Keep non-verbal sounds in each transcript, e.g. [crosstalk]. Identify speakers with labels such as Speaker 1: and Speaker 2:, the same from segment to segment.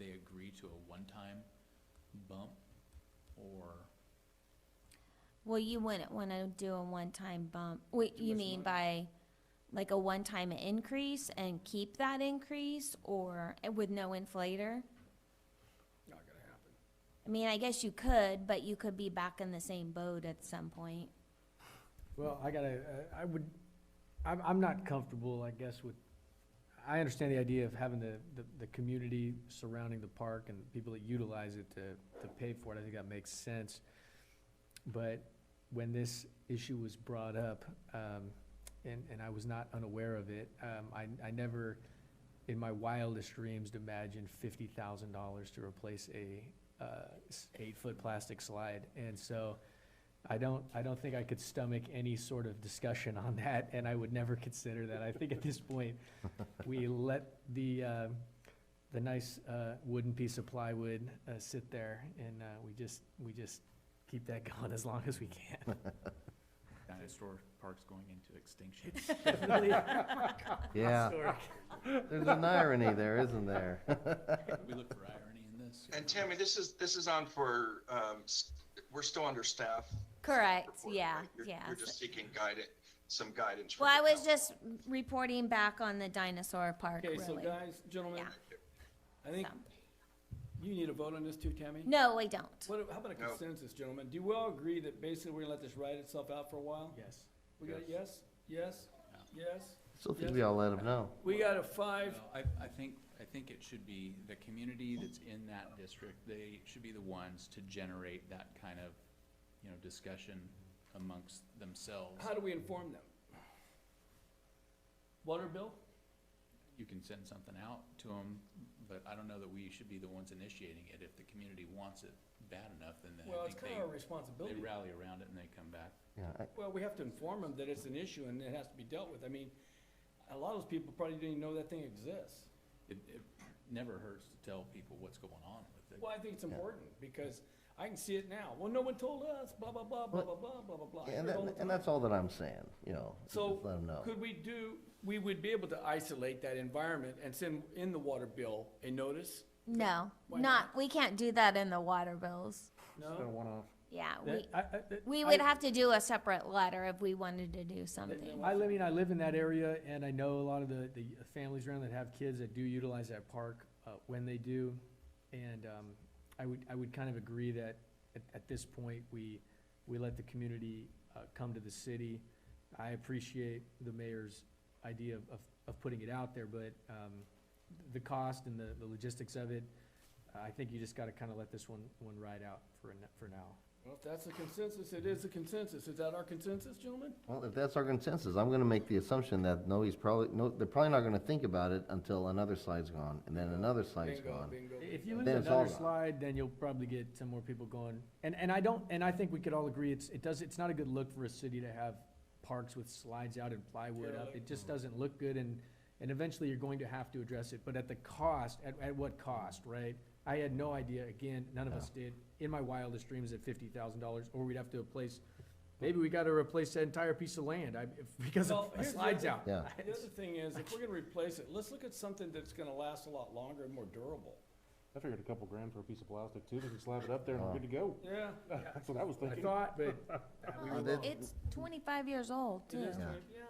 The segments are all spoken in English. Speaker 1: agree to a one-time bump, or,
Speaker 2: Well, you wouldn't want to do a one-time bump. What
Speaker 1: Too
Speaker 2: you
Speaker 1: much
Speaker 2: mean by, like a one-time increase and keep that increase or eh, with no inflator?
Speaker 3: Not gonna happen.
Speaker 2: I mean, I guess you could, but you could be back in the same boat at some point.
Speaker 4: Well, I gotta, uh, I would, I'm, I'm not comfortable, I guess, with, I understand the idea of having the, the, the community surrounding the park and people that utilize it to, to pay for it, I think that makes sense. But when this issue was brought up, um, and, and I was not unaware of it, um, I, I never, in my wildest dreams, imagined fifty thousand dollars to replace a, uh, s- eight-foot plastic slide. And so, I don't, I don't think I could stomach any sort of discussion on that, and I would never [laughs] consider that. I think at this point, we let the, uh, the nice uh, wooden piece of plywood uh, sit there, and uh, we just, we just keep that [laughs] going as long as we can.
Speaker 1: dinosaur park's going into extinction.
Speaker 4: Definitely.
Speaker 5: Yeah,
Speaker 3: [laughs]
Speaker 5: there's an irony there, isn't there?
Speaker 1: [laughs]
Speaker 5: [laughs]
Speaker 1: We look for irony in this.
Speaker 6: And Tammy, this is, this is on for, um, s- we're still under staff.
Speaker 2: Correct,
Speaker 6: report,
Speaker 2: yeah,
Speaker 6: right? You're-
Speaker 2: yeah.
Speaker 6: You're just seeking guidance, some guidance. from
Speaker 2: Well, I
Speaker 6: the
Speaker 2: was
Speaker 6: council.
Speaker 2: just reporting back on the dinosaur park,
Speaker 3: Okay, so
Speaker 2: really.
Speaker 3: guys, gentlemen, I think
Speaker 2: So.
Speaker 3: you need a vote on this too, Tammy?
Speaker 2: No, I don't.
Speaker 3: What, how about a
Speaker 6: No.
Speaker 3: consensus, gentlemen? Do we all agree that basically we're gonna let this ride itself out for a while?
Speaker 4: Yes.
Speaker 3: We got a yes, yes, yes?
Speaker 5: Still think
Speaker 3: yes?
Speaker 5: we all let them know.
Speaker 3: We got a five,
Speaker 1: Well, I, I think, I think it should be the community that's in that district, they should be the ones to generate that kind of, you know, discussion amongst themselves.
Speaker 3: how do we inform them? Water bill?
Speaker 1: You can send something out to them, but I don't know that we should be the ones initiating it. If the community wants it bad enough, then then
Speaker 3: Well,
Speaker 1: I
Speaker 3: it's
Speaker 1: think
Speaker 3: kinda our
Speaker 1: they,
Speaker 3: responsibility.
Speaker 1: they rally around it and they come back.
Speaker 5: Yeah, I-
Speaker 3: Well, we have to inform them that it's an issue and it has to be dealt with. I mean, a lot of those people probably didn't even know that thing exists.
Speaker 1: It, it never hurts to tell people what's going on with it.
Speaker 3: Well, I think it's important because I can see it now. Well, no one told us, blah, blah, blah, blah, blah, blah, blah, blah, blah. I hear
Speaker 5: and
Speaker 3: it
Speaker 5: that,
Speaker 3: all the time.
Speaker 5: and that's all that I'm saying, you know, just
Speaker 3: So
Speaker 5: let them know.
Speaker 3: could we do, we would be able to isolate that environment and send in the water bill a notice?
Speaker 2: No,
Speaker 3: Why
Speaker 2: not, we can't do that in the water bills.
Speaker 3: No?
Speaker 2: Yeah, we,
Speaker 4: That- I- I- that-
Speaker 2: we
Speaker 4: I-
Speaker 2: would have to do a separate letter if we wanted to do something.
Speaker 4: I live, I mean, I live in that area, and I know a lot of the, the families around that have kids that do utilize that park, uh, when they do. And, um, I would, I would kind of agree that at, at this point, we, we let the community, uh, come to the city. I appreciate the mayor's idea of, of, of putting it out there, but, um, the cost and the, the logistics of it, I think you just gotta kinda let this one, one ride out for, a n- for now.
Speaker 3: Well, if that's a consensus, it is a consensus. Is that our consensus, gentlemen?
Speaker 5: Well, if that's our consensus, I'm gonna make the assumption that no, he's probably, no, they're probably not gonna think about it until another slide's gone, and then another slide's
Speaker 3: Bingo,
Speaker 5: gone.
Speaker 3: bingo.
Speaker 4: If
Speaker 3: bingo.
Speaker 4: you lose
Speaker 5: Then it's
Speaker 4: another
Speaker 5: all gone.
Speaker 4: slide, then you'll probably get some more people going. And, and I don't, and I think we could all agree, it's, it does, it's not a good look for a city to have parks with slides out and plywood up.
Speaker 3: Totally.
Speaker 4: It just doesn't look good and, and eventually you're going to have to address it, but at the cost, at, at what cost, right? I had no idea, again, none of us did, in my wildest dreams at fifty thousand dollars, or we'd have to replace, maybe we gotta replace that entire piece of land, I, [laughs] if- because
Speaker 3: Well,
Speaker 4: of
Speaker 3: here's the
Speaker 4: slides
Speaker 3: other-
Speaker 4: out.
Speaker 5: Yeah.
Speaker 3: The other thing is, if we're gonna replace it, let's look at something that's gonna last a lot longer and more durable.
Speaker 7: I figured a couple grand for a piece of plastic too, we can slap it up there and we're good to go.
Speaker 3: Yeah.
Speaker 7: That's what I was
Speaker 4: I
Speaker 7: thinking.
Speaker 4: thought, but
Speaker 2: It's twenty-five years old,
Speaker 3: It
Speaker 2: too.
Speaker 3: is,
Speaker 5: Yeah.
Speaker 3: yeah.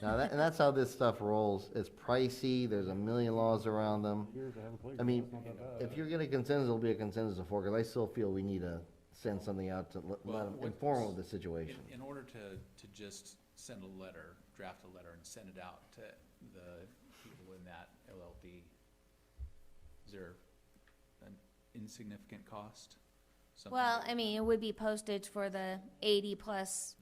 Speaker 5: Now, that, and that's how this stuff rolls. It's pricey, there's a million laws around them.
Speaker 7: Here to have a playground,
Speaker 5: I mean,
Speaker 7: it's not that bad.
Speaker 5: if you're gonna consensus, it'll be a consensus of four, 'cause I still feel we need to send something out to let,
Speaker 1: Well,
Speaker 5: let 'em
Speaker 1: what-
Speaker 5: inform of the
Speaker 1: In,
Speaker 5: situation.
Speaker 1: in order to, to just send a letter, draft a letter and send it out to the people in that LLD, is there an insignificant cost? Something
Speaker 2: Well,
Speaker 1: that-
Speaker 2: I mean, it would be postage for the eighty plus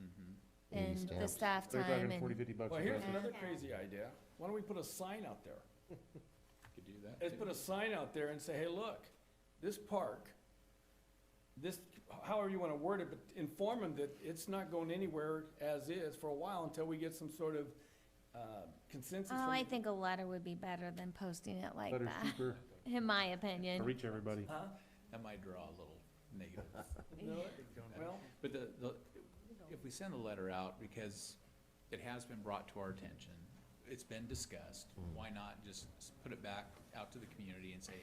Speaker 5: Eighty
Speaker 2: and the
Speaker 5: stamps.
Speaker 2: staff
Speaker 7: They're talking
Speaker 2: time
Speaker 7: 40,
Speaker 2: and,
Speaker 7: 50 bucks.
Speaker 3: Well,
Speaker 7: a
Speaker 3: here's
Speaker 7: plastic.
Speaker 3: another crazy idea. Why don't we put a sign out there?
Speaker 1: Could do that.
Speaker 3: Let's
Speaker 1: too.
Speaker 3: put a sign out there and say, hey, look, this park, this, however you wanna word it, but inform them that it's not going anywhere as is for a while until we get some sort of, uh, consensus.
Speaker 2: oh,
Speaker 3: from
Speaker 2: I
Speaker 3: the-
Speaker 2: think a letter would be better than posting it like
Speaker 7: Better,
Speaker 2: that,
Speaker 7: cheaper,
Speaker 2: [laughs] in my opinion.
Speaker 7: reach everybody.
Speaker 1: That might draw a little negative.
Speaker 3: [laughs] No, Well,
Speaker 1: But the, the, if we send the letter out, because it has been brought to our attention, it's been discussed, why not just put it back out to the community and say,